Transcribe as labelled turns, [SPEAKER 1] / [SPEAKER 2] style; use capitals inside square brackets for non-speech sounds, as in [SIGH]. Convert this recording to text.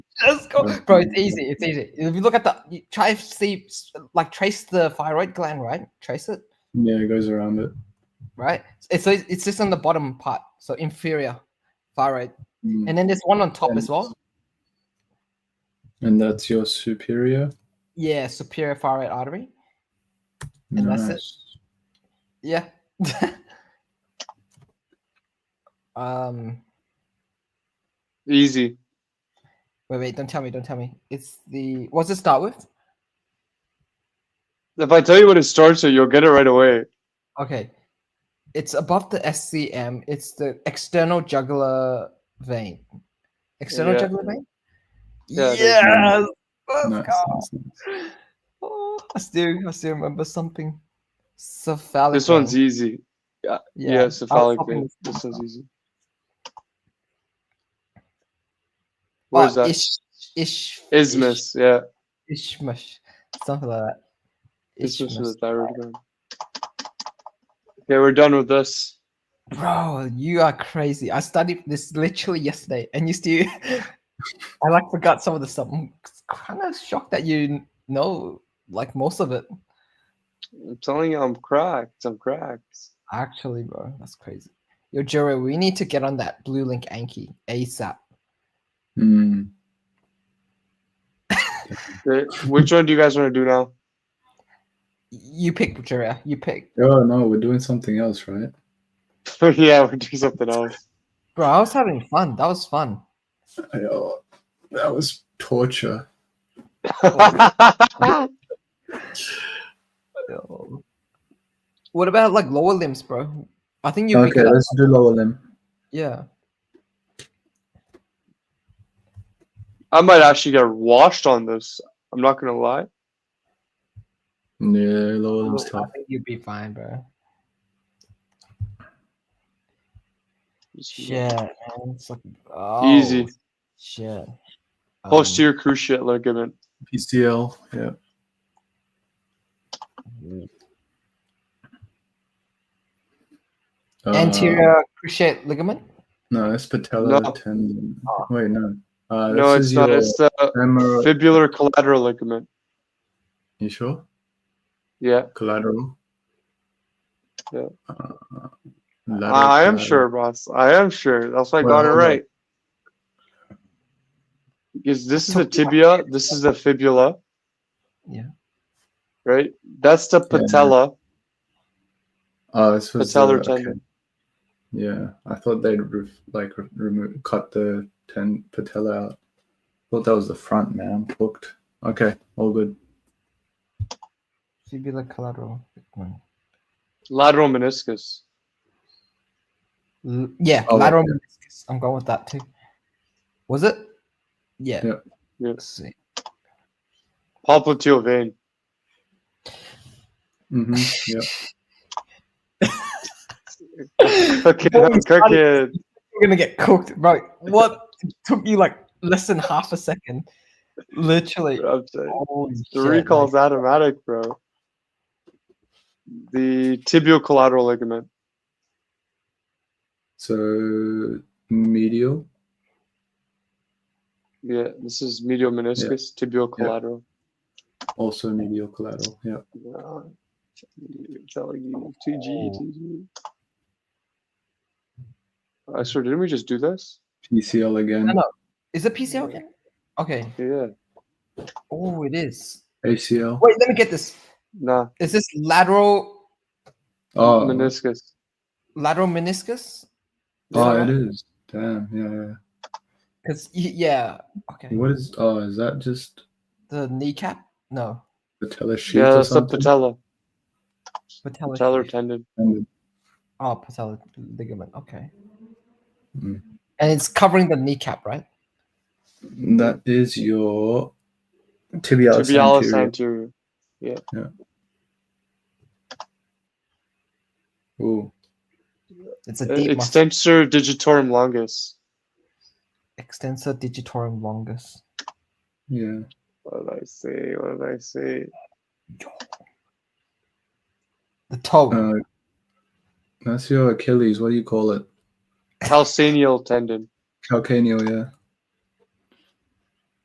[SPEAKER 1] bro, it's easy. It's easy. If you look at the you try to see like trace the thyroid gland, right? Trace it,
[SPEAKER 2] Yeah, it goes around it.
[SPEAKER 1] right? It's it's just on the bottom part, so inferior thyroid,
[SPEAKER 2] Mm.
[SPEAKER 1] and then there's one on top
[SPEAKER 2] And-
[SPEAKER 1] as well.
[SPEAKER 2] And that's your superior.
[SPEAKER 1] Yeah, superior thyroid artery. And that's it. Yeah. [LAUGHS] um.
[SPEAKER 3] Easy.
[SPEAKER 1] Wait, wait. Don't tell me. Don't tell me. It's the. What's it start with?
[SPEAKER 3] If I tell you what it starts with, you'll get it right away.
[SPEAKER 1] Okay. It's above the SCM. It's the external jugular vein. External
[SPEAKER 3] Yeah.
[SPEAKER 1] jugular vein?
[SPEAKER 3] Yeah, there's
[SPEAKER 1] yes! Let's
[SPEAKER 2] Nice,
[SPEAKER 1] go!
[SPEAKER 2] nice, nice.
[SPEAKER 1] Oh, I still I still remember something. Cephalic.
[SPEAKER 3] This one's
[SPEAKER 1] vein.
[SPEAKER 3] easy. Yeah,
[SPEAKER 1] I was
[SPEAKER 3] cephalic
[SPEAKER 1] hoping
[SPEAKER 3] vein.
[SPEAKER 1] it's-
[SPEAKER 3] This one's easy.
[SPEAKER 1] but
[SPEAKER 3] Where's that?
[SPEAKER 1] Ish, ish, ish-
[SPEAKER 3] Isthmus. Yeah.
[SPEAKER 1] Ishmash. Something like that.
[SPEAKER 3] Isthmus
[SPEAKER 1] Ishmus.
[SPEAKER 3] is the thyroid gland. Okay, we're done with this.
[SPEAKER 1] Bro, you are crazy. I studied this literally yesterday, and you still, [LAUGHS] I like forgot some of the stuff. I'm kind of shocked that you kn- know like most of it.
[SPEAKER 3] I'm telling you, I'm cracked. I'm cracked.
[SPEAKER 1] Actually, bro, that's crazy. Yo, Jerry, we need to get on that blue link Anki ASAP.
[SPEAKER 2] Mm.
[SPEAKER 3] Okay, Which one do you guys want to do now? [LAUGHS]
[SPEAKER 1] You pick, Jerry. You pick.
[SPEAKER 2] Oh no, we're doing something else, right?
[SPEAKER 3] yeah, we're doing something else.
[SPEAKER 1] Bro, I was having fun. That was fun.
[SPEAKER 2] Oh, that was torture.
[SPEAKER 1] Yo. What about like lower limbs, bro? I think you pick
[SPEAKER 2] okay,
[SPEAKER 1] it up.
[SPEAKER 2] let's do lower limb.
[SPEAKER 1] Yeah.
[SPEAKER 3] I might actually get washed on this. I'm not gonna lie.
[SPEAKER 2] Yeah, lower
[SPEAKER 1] I
[SPEAKER 2] limb's tough.
[SPEAKER 1] think you'd be fine, bro.
[SPEAKER 3] Just-
[SPEAKER 1] Shit, man. It's like,
[SPEAKER 3] Easy.
[SPEAKER 1] oh, Shit. Um,
[SPEAKER 3] Posterior cruciate ligament.
[SPEAKER 2] PCL. Yeah.
[SPEAKER 1] mm.
[SPEAKER 2] Uh,
[SPEAKER 1] anterior cruciate ligament.
[SPEAKER 2] No, it's patella
[SPEAKER 3] No.
[SPEAKER 2] tendon.
[SPEAKER 1] Oh.
[SPEAKER 2] Wait, no. Uh,
[SPEAKER 3] No,
[SPEAKER 2] this
[SPEAKER 3] it's
[SPEAKER 2] is
[SPEAKER 3] not.
[SPEAKER 2] your
[SPEAKER 3] It's the
[SPEAKER 2] femoral-
[SPEAKER 3] fibular collateral ligament.
[SPEAKER 2] You sure?
[SPEAKER 3] Yeah,
[SPEAKER 2] Collateral.
[SPEAKER 3] Yeah.
[SPEAKER 2] Uh, lateral
[SPEAKER 3] Ah, I am
[SPEAKER 2] collateral.
[SPEAKER 3] sure, boss. I am sure. That's why I got
[SPEAKER 2] Well,
[SPEAKER 3] it
[SPEAKER 2] no.
[SPEAKER 3] right. Because this is the
[SPEAKER 1] Talking about
[SPEAKER 3] tibia. This is the fibula.
[SPEAKER 1] Yeah.
[SPEAKER 3] Right. That's the patella.
[SPEAKER 2] Oh, this was
[SPEAKER 3] Patellar
[SPEAKER 2] the- okay.
[SPEAKER 3] tendon.
[SPEAKER 2] Yeah, I thought they'd re- like re- remove cut the ten patella out. Thought that was the front, man. Booked. Okay, all good.
[SPEAKER 1] Fibular collateral. ligament.
[SPEAKER 3] Lateral meniscus.
[SPEAKER 1] L- yeah,
[SPEAKER 2] Oh,
[SPEAKER 1] lateral
[SPEAKER 2] yeah.
[SPEAKER 1] meniscus. I'm going with that too. Was it? Yeah.
[SPEAKER 2] Yeah.
[SPEAKER 3] Yeah.
[SPEAKER 1] Let's see.
[SPEAKER 3] Popliteal vein. [LAUGHS]
[SPEAKER 2] hmm Yeah.
[SPEAKER 3] Okay,
[SPEAKER 1] Holy
[SPEAKER 3] I'm [LAUGHS] cooking.
[SPEAKER 1] You're gonna get cooked, bro. What it took you like less than half a second? Literally.
[SPEAKER 3] I'm saying.
[SPEAKER 1] Holy
[SPEAKER 3] The
[SPEAKER 1] shit,
[SPEAKER 3] recall's
[SPEAKER 1] man.
[SPEAKER 3] automatic, bro. The tibial collateral ligament.
[SPEAKER 2] So medial.
[SPEAKER 3] Yeah, this is medial meniscus, tibial
[SPEAKER 2] Yeah.
[SPEAKER 3] collateral.
[SPEAKER 2] Also medial collateral. Yeah.
[SPEAKER 3] Yeah. Telling you, 2G, 2G. Oh. I swear, didn't we just do this?
[SPEAKER 2] PCL
[SPEAKER 1] No,
[SPEAKER 2] again.
[SPEAKER 1] no. Is it PCL again? Okay.
[SPEAKER 3] Yeah.
[SPEAKER 1] Oh, it is.
[SPEAKER 2] ACL.
[SPEAKER 1] Wait, let me get this.
[SPEAKER 3] Nah.
[SPEAKER 1] Is this lateral
[SPEAKER 2] Oh,
[SPEAKER 3] Meniscus.
[SPEAKER 1] lateral meniscus?
[SPEAKER 2] oh, it is. Damn. Yeah,
[SPEAKER 1] Because yeah, okay.
[SPEAKER 2] yeah. What is? Oh, is that just
[SPEAKER 1] The kneecap? No,
[SPEAKER 2] patella sheath
[SPEAKER 3] Yeah,
[SPEAKER 2] or
[SPEAKER 3] that's the
[SPEAKER 2] something?
[SPEAKER 1] Oh,
[SPEAKER 3] patella.
[SPEAKER 1] patella.
[SPEAKER 3] Patellar
[SPEAKER 1] sheath.
[SPEAKER 3] tendon.
[SPEAKER 2] And-
[SPEAKER 1] Oh, patella ligament. Okay.
[SPEAKER 2] Mm.
[SPEAKER 1] And it's covering the kneecap, right?
[SPEAKER 2] That is your tibialis.
[SPEAKER 3] Tibialis
[SPEAKER 2] anterior.
[SPEAKER 3] anterior.
[SPEAKER 2] Ooh.
[SPEAKER 1] It's a
[SPEAKER 3] Uh,
[SPEAKER 1] deep muscle.
[SPEAKER 3] Extensor digitorum longus.
[SPEAKER 1] extensor digitorum longus.
[SPEAKER 2] Yeah.
[SPEAKER 3] What did I say? What did I say?
[SPEAKER 1] The toe.
[SPEAKER 2] Uh, that's your Achilles. What do you call it?
[SPEAKER 3] Calcaneal tendon.
[SPEAKER 2] Calcaneal. Yeah.